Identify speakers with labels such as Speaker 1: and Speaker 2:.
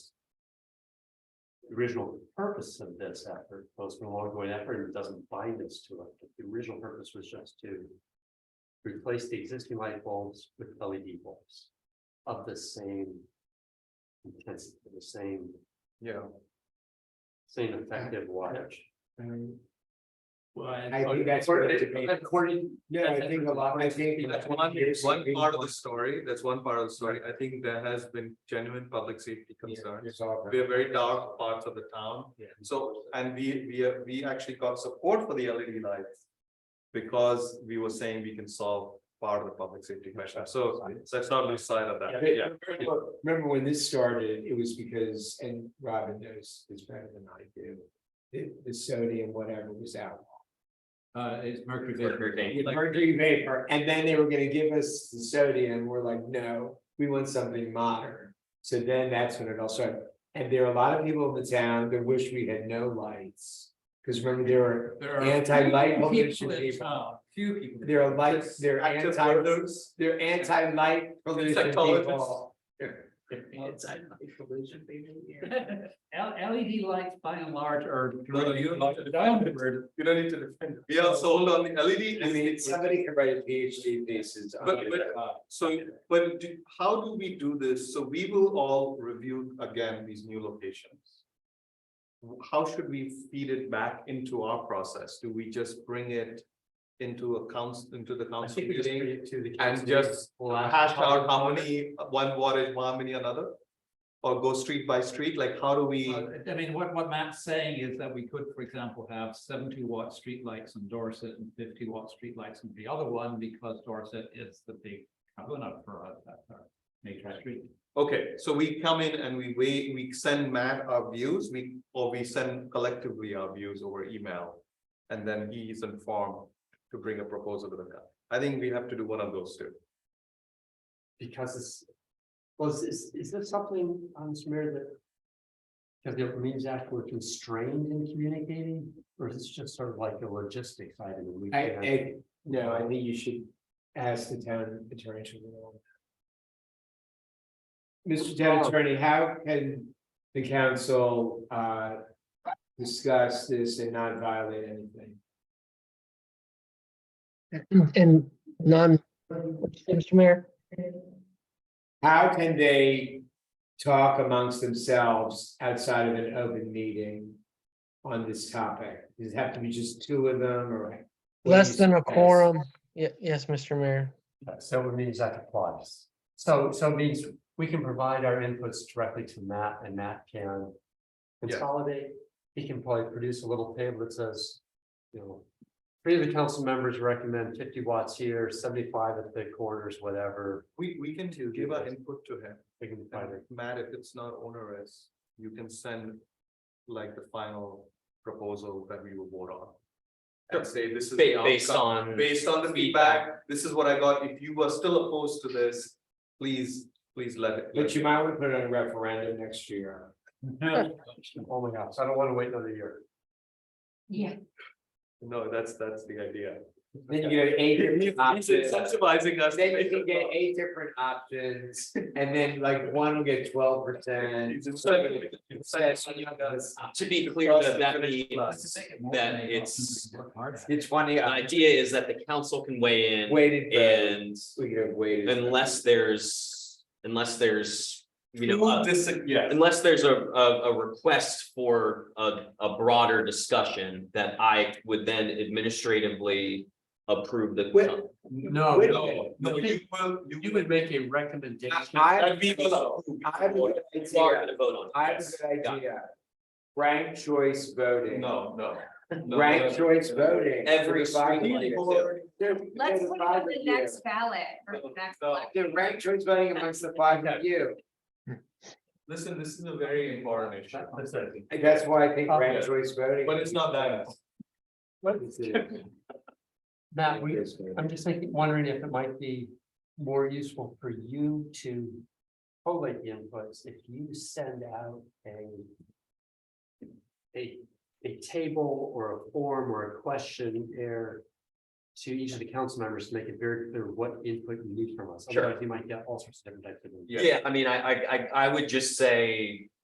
Speaker 1: the original purpose of this effort was an ongoing effort and it doesn't bind us to it. The original purpose was just to replace the existing light bulbs with LED bulbs of the same intensity, the same,
Speaker 2: Yeah.
Speaker 1: same effective wattage.
Speaker 2: And
Speaker 3: Well,
Speaker 2: I think that's where the debate-
Speaker 3: According.
Speaker 2: No, I think a lot, I think.
Speaker 3: That's
Speaker 2: one,
Speaker 3: One part of the story, that's one part of the story. I think there has been genuine public safety concerns. We are very dark parts of the town.
Speaker 2: Yeah.
Speaker 3: So, and we, we, are- we actually got support for the LED lights. Because we were saying we can solve part of the public safety question. So let's not lose sight of that.
Speaker 2: But remember- Remember when this started, it was because, and Robin knows this better than I do, the, the sodium, whatever was out.
Speaker 4: Uh, it's mercury
Speaker 3: Mercury
Speaker 4: vapor.
Speaker 3: vapor.
Speaker 2: With mercury vapor, and then they were gonna give us the sodium, we're like, no, we want something modern. So then that's when it all started, and there are a lot of people in the town that wish we had no lights. Cause remember, there were,
Speaker 4: There are
Speaker 2: Anti-light
Speaker 4: few
Speaker 2: pollution
Speaker 4: people in
Speaker 2: people.
Speaker 4: town, Few people.
Speaker 2: there are lights, there are
Speaker 3: Active
Speaker 2: anti,
Speaker 3: voters.
Speaker 2: there are anti-light pollution
Speaker 3: Insectologists.
Speaker 2: people.
Speaker 4: L- LED lights by and large are.
Speaker 3: No, no, you don't like it.
Speaker 4: Downward.
Speaker 3: You don't need to defend. it. We are sold on the E LED.
Speaker 2: I mean, somebody could write a PhD thesis on
Speaker 3: But-
Speaker 2: it. uh,
Speaker 3: but- So, but do, how do we do this? So we will all review again these new locations. How should we feed it back into our process? Do we just bring it into a council, into the
Speaker 1: I
Speaker 3: council
Speaker 1: think we just bring
Speaker 3: meeting?
Speaker 1: it to the
Speaker 3: And
Speaker 1: council
Speaker 3: just
Speaker 1: meeting.
Speaker 3: hash out how many, one wattage, how many another? Or go street by street, like how do we,
Speaker 4: Uh, I mean, what, what Matt's saying is that we could, for example, have seventy watt streetlights in Dorset and fifty watt streetlights in the other one because Dorset is the big, I'm going up for a, a- a major street.
Speaker 3: okay, so we come in and we wait, we send Matt our views, we, or we send collectively our views over email. And then he is informed to bring a proposal to the council. I think we have to do one of those two.
Speaker 1: Because it's, was, is, is there something on Samir that? Because it means that we're constrained in communicating, or is this just sort of like a logistics item? and we
Speaker 2: I,
Speaker 1: can't-
Speaker 2: I, no, I think you should ask the town attorney. to rule on that. Mr. Town Attorney, how can the council, uh, discuss this and not violate anything?
Speaker 5: And none, Mr. Mayor,
Speaker 2: How can they talk amongst themselves outside of an open meeting on this topic? Does it have to be just two of them or?
Speaker 5: less than a quorum. Ye- yes, Mr. Mayor.
Speaker 1: So it means that applies. So, so it means we can provide our inputs directly to Matt and Matt can. Consolidate, he can probably produce a little table that says, you know. Three of the council members recommend fifty watts here, seventy-five at the corners, whatever.
Speaker 3: We, we can
Speaker 1: To
Speaker 3: give
Speaker 1: give
Speaker 3: our
Speaker 1: us-
Speaker 3: input to him,
Speaker 1: They can
Speaker 3: And
Speaker 1: find it.
Speaker 3: Matt, if it's not onerous, you can send like the final proposal that we will vote on. And say this is. the outcome.
Speaker 1: on.
Speaker 3: Based on the feedback, this is what I got, if you were still opposed to this, please, please let it.
Speaker 2: But you might want to put it on a referendum next year.
Speaker 1: Oh my gosh, I don't wanna wait another year.
Speaker 3: No, that's, that's the idea.
Speaker 2: Then you get eight different
Speaker 3: He's
Speaker 2: options,
Speaker 3: incentivizing us. to
Speaker 2: then you
Speaker 3: make
Speaker 2: can
Speaker 3: it
Speaker 2: get
Speaker 3: up.
Speaker 2: eight different options, and then like one will get twelve percent.
Speaker 3: He's incentivizing-
Speaker 6: Uh, To be clear,
Speaker 3: Plus
Speaker 6: that
Speaker 3: the
Speaker 6: that
Speaker 3: finished
Speaker 6: means that it's,
Speaker 2: It's uh, twenty,
Speaker 6: the idea is that the council can weigh in
Speaker 2: weighted, vote.
Speaker 6: and
Speaker 2: we could have waited.
Speaker 6: unless there's, unless there's, you know,
Speaker 3: Who
Speaker 6: uh,
Speaker 3: dis- yeah,
Speaker 6: unless there's a, a, a request for a, a broader discussion that I would then administratively approve the.
Speaker 2: Wait.
Speaker 6: council.
Speaker 1: No,
Speaker 2: Wait a
Speaker 1: no,
Speaker 2: minute.
Speaker 1: no, you,
Speaker 3: will, you
Speaker 1: you would make a recommendation.
Speaker 2: I,
Speaker 3: And we will approve.
Speaker 2: I have a good
Speaker 6: Sorry,
Speaker 2: idea,
Speaker 6: to vote on it,
Speaker 2: I have
Speaker 6: yes.
Speaker 2: a good
Speaker 6: Yeah.
Speaker 2: idea. Rank choice voting.
Speaker 3: No, no. no,
Speaker 2: Rank
Speaker 3: no.
Speaker 2: choice voting.
Speaker 6: Every
Speaker 2: Divide
Speaker 6: street
Speaker 2: the
Speaker 6: light.
Speaker 2: board. They're-
Speaker 7: Let's
Speaker 2: they're
Speaker 7: put it on
Speaker 2: divided
Speaker 7: the
Speaker 2: here.
Speaker 7: next ballot for the next
Speaker 3: No.
Speaker 7: election.
Speaker 2: The rank choice voting amongst the five of you,
Speaker 3: Listen, this is a very important issue,
Speaker 2: And that's why I think rank
Speaker 3: Okay.
Speaker 2: choice voting.
Speaker 3: but it's not that.
Speaker 1: Matt, we, I'm just thinking, wondering if it might be more useful for you to collate the inputs, if you send out a a, a table or a form or a questionnaire to each of the council members to make it very clear what input you need from us.
Speaker 6: Sure.
Speaker 1: Otherwise, you might get all sorts of different types of.
Speaker 3: Yeah.
Speaker 6: Yeah, I mean, I, I, I, I would just say,